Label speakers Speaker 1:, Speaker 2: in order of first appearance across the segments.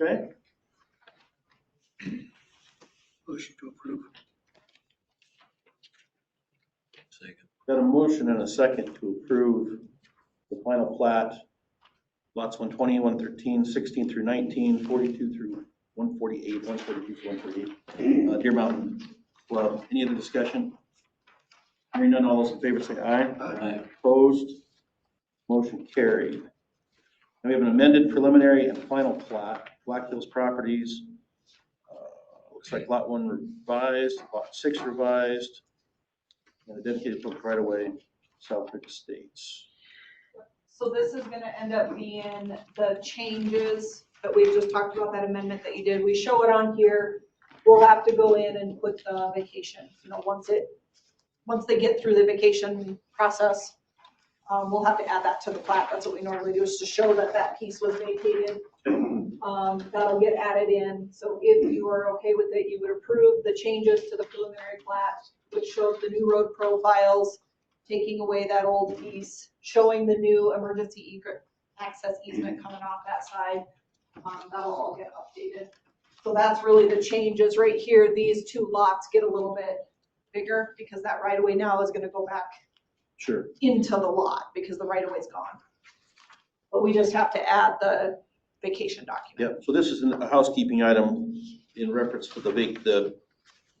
Speaker 1: right?
Speaker 2: Motion to approve.
Speaker 3: Second.
Speaker 1: Got a motion and a second to approve the final plat, lots 120, 113, 16 through 19, 42 through 148, 142 to 148, uh, Deer Mountain Club. Any other discussion? Hearing none, all those in favor say aye.
Speaker 3: Aye.
Speaker 1: Opposed? Motion carried. And we have an amended preliminary and final plat, Black Hills Properties. uh, Looks like lot one revised, lot six revised, and a dedicated book right away, Southwick Estates.
Speaker 4: So this is gonna end up being the changes that we've just talked about, that amendment that you did. We show it on here. We'll have to go in and put the vacation, you know, once it, once they get through the vacation process, um, we'll have to add that to the plat. That's what we normally do, is to show that that piece was vacated. Um, that'll get added in. So if you are okay with it, you would approve the changes to the preliminary plat, which shows the new road profiles, taking away that old piece, showing the new emergency egret, access easement coming off that side. Um, that'll all get updated. So that's really the changes right here. These two lots get a little bit bigger because that right of way now is gonna go back
Speaker 1: Sure.
Speaker 4: into the lot because the right of way's gone. But we just have to add the vacation document.
Speaker 1: Yep, so this is a housekeeping item in reference to the vac, the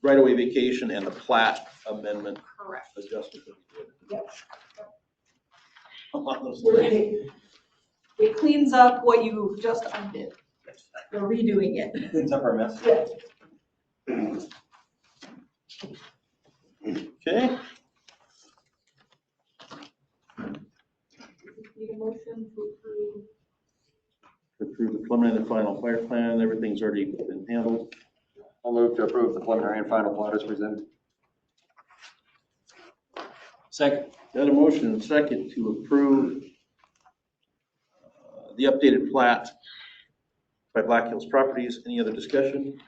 Speaker 1: right-of-way vacation and the plat amendment
Speaker 4: Correct.
Speaker 1: adjustment that we did.
Speaker 4: Yep.
Speaker 1: A lot of those
Speaker 4: We're
Speaker 1: things.
Speaker 4: gonna, it cleans up what you just undid. We're redoing it.
Speaker 5: Cleans up our mess.
Speaker 4: Yeah.
Speaker 1: Okay.
Speaker 4: Need a motion to approve
Speaker 1: approve the preliminary and final fire plan, everything's already been handled.
Speaker 5: I'll move to approve the preliminary and final plat as presented.
Speaker 3: Second.
Speaker 1: Got a motion and second to approve uh, the updated plat by Black Hills Properties, any other discussion?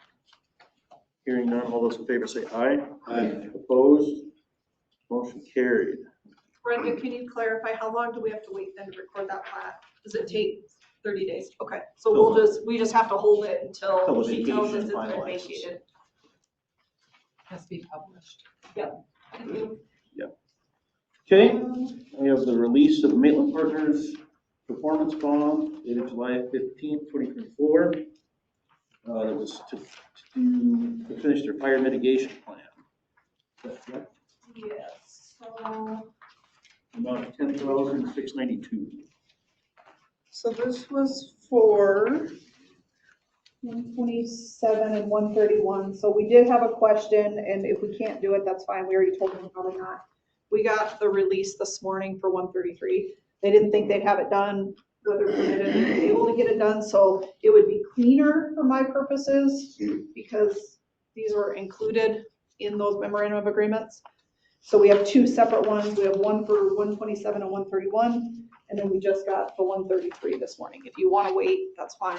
Speaker 1: Hearing none, all those in favor say aye.
Speaker 3: Aye.
Speaker 1: Opposed? Motion carried.
Speaker 4: Brenda, can you clarify, how long do we have to wait then to record that plat? Does it take thirty days? Okay, so we'll just, we just have to hold it
Speaker 1: Till
Speaker 4: until
Speaker 1: the
Speaker 4: she tells
Speaker 1: vacation
Speaker 4: us it's been
Speaker 1: finalizes.
Speaker 4: vacated.
Speaker 6: has to be published.
Speaker 1: Okay, we have the release of Maitland Partners performance bond dated July fifteenth, twenty twenty-four. Uh, that was to,
Speaker 4: Mm.
Speaker 1: to to finish their fire mitigation plan. Is that correct?
Speaker 4: Yes, so,
Speaker 1: About ten thousand six ninety-two.
Speaker 4: so this was for one twenty-seven and one thirty-one, so we did have a question, and if we can't do it, that's fine, we already told them probably not. We got the release this morning for one thirty-three. They didn't think they'd have it done, whether they didn't be able to get it done, so it would be cleaner for my purposes because these were included in those memorandum of agreements. So we have two separate ones. We have one for one twenty-seven and one thirty-one, and then we just got the one thirty-three this morning. If you wanna wait, that's fine.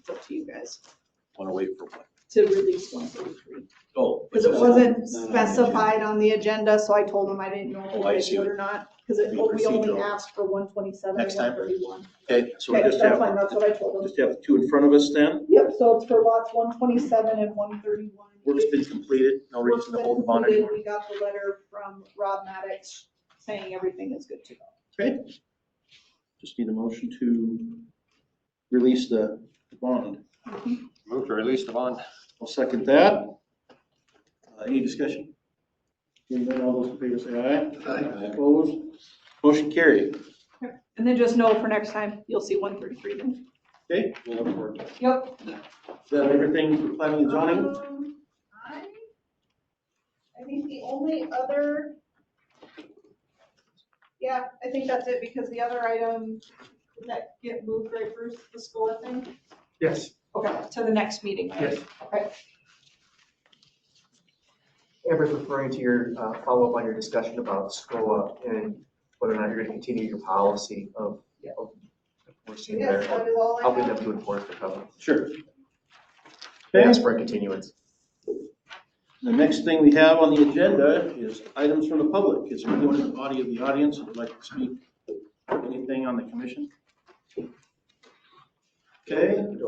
Speaker 4: It's up to you guys
Speaker 3: Want to wait for what?
Speaker 4: to release one thirty-three.
Speaker 3: Oh.
Speaker 4: Because it
Speaker 3: No, no, I get
Speaker 4: wasn't
Speaker 3: you.
Speaker 4: specified on the agenda, so I told them I didn't know
Speaker 3: Oh, I
Speaker 4: if
Speaker 3: see.
Speaker 4: they did it or not, because it,
Speaker 3: Be
Speaker 4: we only
Speaker 3: procedural.
Speaker 4: asked for one twenty-seven and
Speaker 3: Next time.
Speaker 4: one thirty-one.
Speaker 1: Okay, so we
Speaker 4: Okay,
Speaker 1: just
Speaker 4: that's fine,
Speaker 1: have,
Speaker 4: that's what I told them.
Speaker 1: just have two in front of us then.
Speaker 4: Yep, so it's for lots one twenty-seven and one thirty-one.
Speaker 1: Work's been completed, no reason to hold the bond anymore.
Speaker 4: We got the letter from Rob Maddox saying everything is good to go.
Speaker 1: Okay. Just need a motion to release the bond.
Speaker 5: Move to release the bond.
Speaker 1: I'll second that. Uh, Any discussion? Hearing none, all those in favor say aye.
Speaker 3: Aye.
Speaker 1: Opposed? Motion carried.
Speaker 4: And then just know for next time, you'll see one thirty-three then.
Speaker 1: Okay, we'll look forward to it.
Speaker 4: Yep.
Speaker 1: Is that everything for planning and zoning?
Speaker 4: Um, I I think the only other, yeah, I think that's it, because the other item, did that get moved, right, Bruce, the school thing?
Speaker 2: Yes,
Speaker 4: Okay, to the next meeting. right?
Speaker 2: yes.
Speaker 4: Okay.
Speaker 2: Amber's referring to your uh, follow-up on your discussion about SCOA and whether or not you're going to continue your policy of, of enforcing
Speaker 4: Yes,
Speaker 2: their,
Speaker 4: that is all I
Speaker 2: helping
Speaker 4: have.
Speaker 2: them to enforce the covenant.
Speaker 1: Sure. Okay,
Speaker 2: Ask for a continuance.
Speaker 1: the next thing we have on the agenda is items from the public. Is there anyone in the body of the audience who would like to speak anything on the commission? Okay,